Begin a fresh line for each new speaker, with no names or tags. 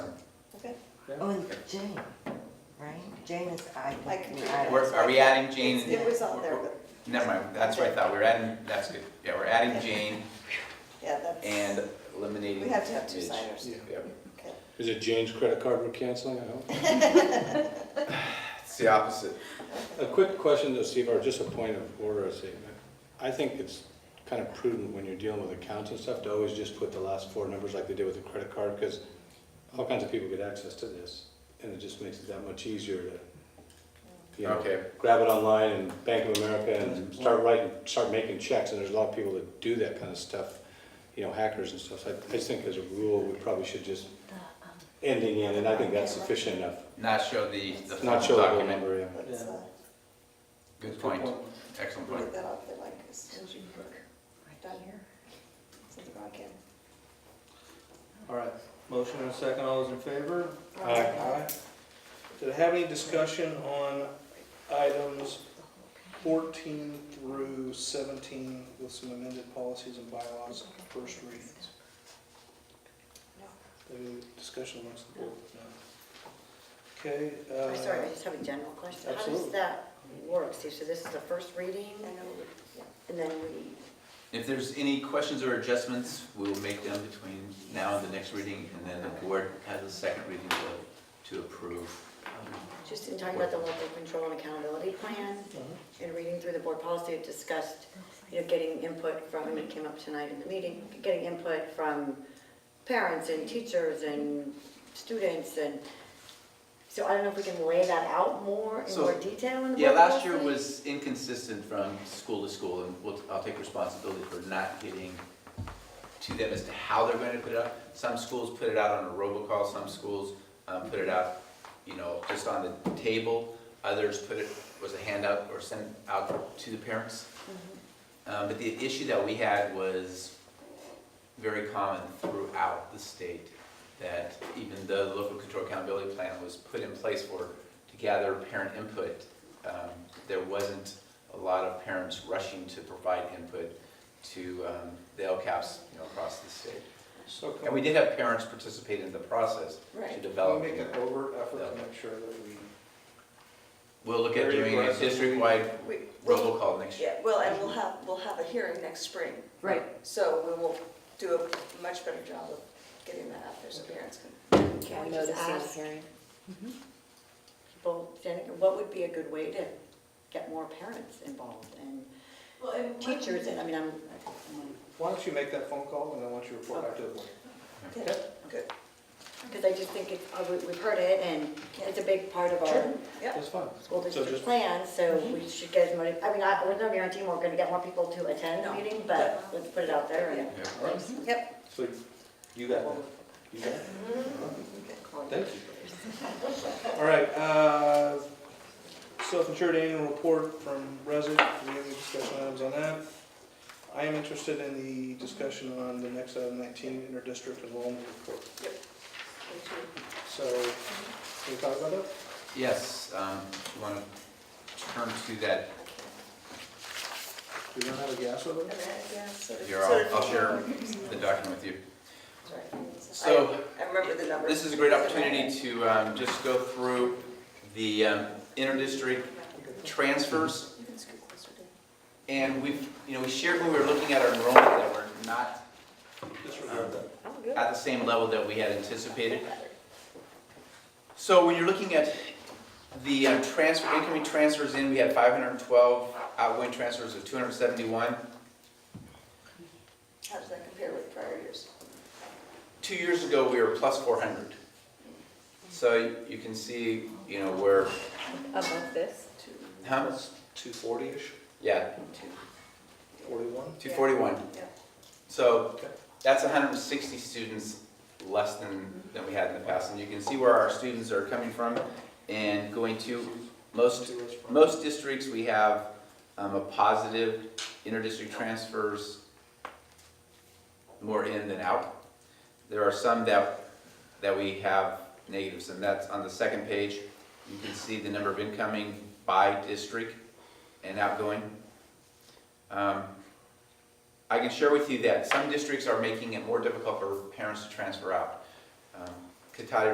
Oh, and Jane, right? Jane is, I
I can-
think. we're at it.
um,
We're, are we adding Jane? and-
It was on there,
we're-
but,
Never mind, that's what I thought, we're adding, that's good, yeah, we're adding Jane
yeah, that's.
and eliminating.
We have to have two
Mitch.
signers.
Yep.
Okay.
Is it Jane's credit card we're canceling, I hope?
It's the opposite.
A quick question to Steve, or just a point of order, I think. I think it's kind of prudent when you're dealing with accounts and stuff to always just put the last four numbers like they did with the credit card, because all kinds of people get access to this, and it just makes it that much easier to, you know,
Okay.
grab it online and Bank of America and start writing, start making checks, and there's a lot of people that do that kind of stuff, you know, hackers and stuff. So I, I just think as a rule, we probably should just ending in, and I think that's sufficient enough.
Not show the, the full
Not show the whole
document.
number, yeah.
Let's, uh,
Good point, excellent point.
Put that off there like as soon as you done here. Since we're on camera.
All right, motion and a second, all those in favor?
Aye.
Did I have any discussion on items fourteen through seventeen with some amended policies and bylaws, first readings? Any discussion amongst the board? No. Okay.
I'm Oh, sorry, I
uh,
just have a general question. How does
Absolutely.
that work? See, so this is the first reading,
I know, yeah.
and then we,
If there's any questions or adjustments, we will make them between now and the next reading, and then the board has a second reading to, to approve.
just in talking about the local control and accountability plan, and reading through the board policy, it discussed, you know, getting input from, and it came up tonight in the meeting, getting input from parents and teachers and students and, so I don't know if we can lay that out more in
So-
more detail in the board policy?
Yeah, last year was inconsistent from school to school, and we'll, I'll take responsibility for not getting to them as to how they're gonna put it up. Some schools put it out on a robocall, some schools, um, put it out, you know, just on the table. Others put it, was a handout or sent out to the parents.
Mm-hmm.
Um, but the issue that we had was very common throughout the state, that even the local control accountability plan was put in place for, to gather parent input, um, there wasn't a lot of parents rushing to provide input to um, the LCAPs, you know, across the state.
So
And
can
we
we
did have parents participate in the process to
Right.
can we
develop.
make an overt effort
Yeah.
to make sure that we
We'll look at
Very
doing a
aggressive.
district-wide
We, we,
robocall next year.
yeah, well, and we'll have, we'll have a hearing next spring.
Right.
So we will do a much better job of getting that out there so parents can
Can we just ask
hearing?
people, Janet, what would be a good way to get more parents involved and teachers, and I mean, I'm,
Why don't you make that phone call and then once you report back to the board?
Yeah, good.
because I just think it's, uh, we- we've heard it, and it's a big part of our
Yeah.
That's fine.
school district
just-
plan, so we should get as many, I mean, I, we're not guaranteeing we're gonna get more people to attend the
No.
meeting, but let's put it out there and.
Yeah.
All right.
Yep.
So you got that? You got it? Thank you. All right, uh, self-insured annual report from Resit, do we have any discussion items on that? I am interested in the discussion on the next item nineteen, inter-district enrollment report. So, can we talk about that?
Yes, um, you want to turn to that,
Do we not have a gas over there?
Yeah, sort of-
here, I'll, I'll share the document with you.
Sorry.
So,
I remember the numbers.
This is a great opportunity to um, just go through the um, inter-district transfers.
You can scoot closer to-
And we've, you know, we shared when we were looking at our enrollment that we're not um,
Disregard that.
at the same level that we had anticipated. So when you're looking at the um, transfer, incoming transfers in, we had 512, outgoing transfers of 271.
How does that compare with prior years?
Two years ago, we were plus 400. So you- you can see, you know, we're,
Above this?
huh?
Two forty-ish,
Yeah,
forty-one?
Two forty-one.
Yeah.
So
Okay.
that's hundred and sixty students less than, than we had in the past. And you can see where our students are coming from and going to. Most, most districts, we have um, a positive interdistrict transfers more in than out. There are some that, that we have negatives, and that's on the second page. You can see the number of incoming by district and outgoing. Um, I can share with you that some districts are making it more difficult for parents to transfer out. Um, Cotati